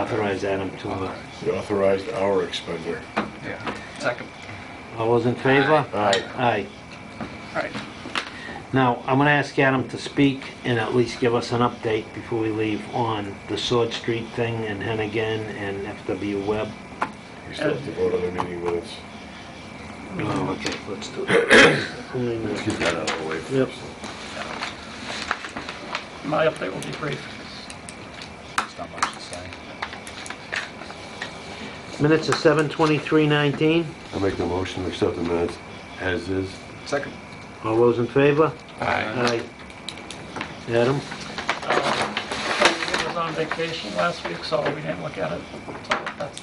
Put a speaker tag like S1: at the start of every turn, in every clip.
S1: authorize Adam to,
S2: You authorized our expender.
S3: Yeah. Second.
S1: all those in favor?
S2: Aye.
S1: Aye.
S3: All right.
S1: Now, I'm gonna ask Adam to speak and at least give us an update before we leave on the Sword Street thing and Hennigan and FW Web.
S2: We still have to vote on the meeting minutes.
S1: Oh, okay, let's do it.
S2: Get that out of the way
S1: Yep.
S2: first.
S3: My update will be brief.
S4: There's not much to say.
S1: Minutes of seven twenty-three nineteen,
S5: I make the motion to accept the minutes as is.
S4: Second.
S1: all those in favor?
S4: Aye.
S1: Aye. Adam?
S3: He was on vacation last week, so we didn't look at it. So that's,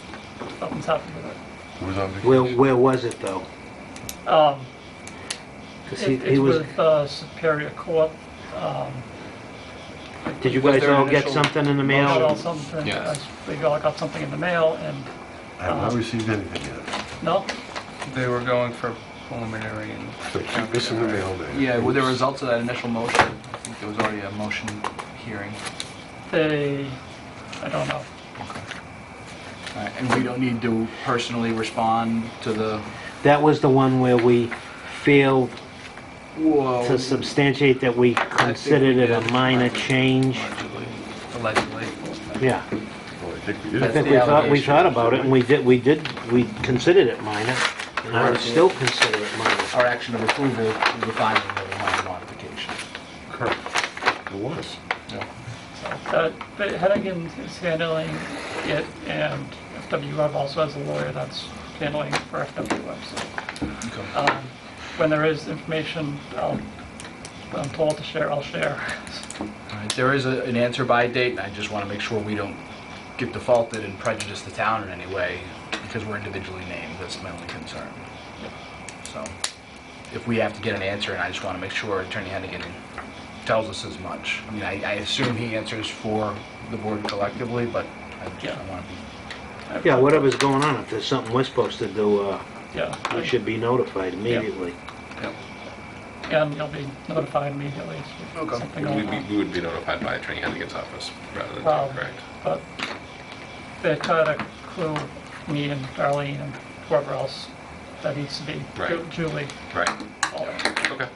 S3: something's happened with it.
S5: Who was on
S1: Where,
S5: vacation?
S1: where was it though?
S3: Um,
S1: 'Cause he,
S3: it-
S1: he
S3: It's
S1: was,
S3: with uh, Superior Court. um,
S1: did you
S4: Was
S1: guys
S4: there an
S1: all get
S4: initial
S1: something in the
S3: We all
S1: mail?
S3: something,
S4: Yes.
S3: we all got something in the mail, and,
S5: I have not received anything yet.
S3: no,
S6: They were going for preliminary and...
S5: So keep missing the mail there.
S4: Yeah, with the results of that initial motion, I think there was already a motion hearing.
S3: they, I don't know.
S4: All right, And we don't need to personally respond to the,
S1: That was the one where we failed
S4: whoa.
S1: to substantiate that we considered it a
S4: did.
S1: minor change.
S4: Allegedly. Allegedly.
S1: Yeah,
S5: Well, I think we
S1: I
S5: did.
S1: think we thought, we thought about it, and we did, we did, we considered it minor, and I would
S4: Correct.
S1: still consider it minor.
S4: Our action of approval is the finding of a minor modification.
S5: It was.
S3: Uh, But Hennigan is handling it, and FWF also has a lawyer that's handling it for FWF, so. um, When there is information, I'll, I'm told to share, I'll share.
S4: All right, There is a- an answer by date, and I just want to make sure we don't get defaulted and prejudice the town in any way, because we're individually named, that's my only concern. So, if we have to get an answer, and I just want to make sure Attorney Hennigan tells us as much. I mean, I I assume he answers for the board collectively, but I
S3: Yeah.
S4: just want to be...
S1: Yeah, whatever's going on, if there's something we're supposed to do, uh,
S3: Yeah.
S1: we should be notified immediately.
S3: And you'll be notified immediately if
S4: Okay.
S3: something
S7: We
S3: going
S7: would be-
S3: on.
S7: we would be notified by Attorney Hennigan's office rather
S3: uh,
S7: than,
S3: Wow.
S7: correct?
S3: Um, But they try to clue me and Darlene and whoever else that needs to be,
S7: Right.
S3: Ju- Julie,
S7: Right,
S3: all
S7: okay.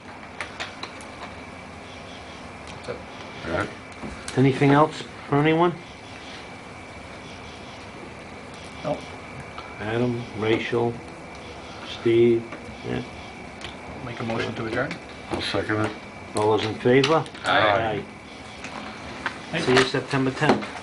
S5: All right.
S1: Anything else for anyone?
S3: Nope.
S1: Adam, Rachel, Steve, yeah,
S4: Make a motion to adjourn?
S5: I'll second it.
S1: all those in favor?
S7: Aye.
S1: Aye. See you September 10th.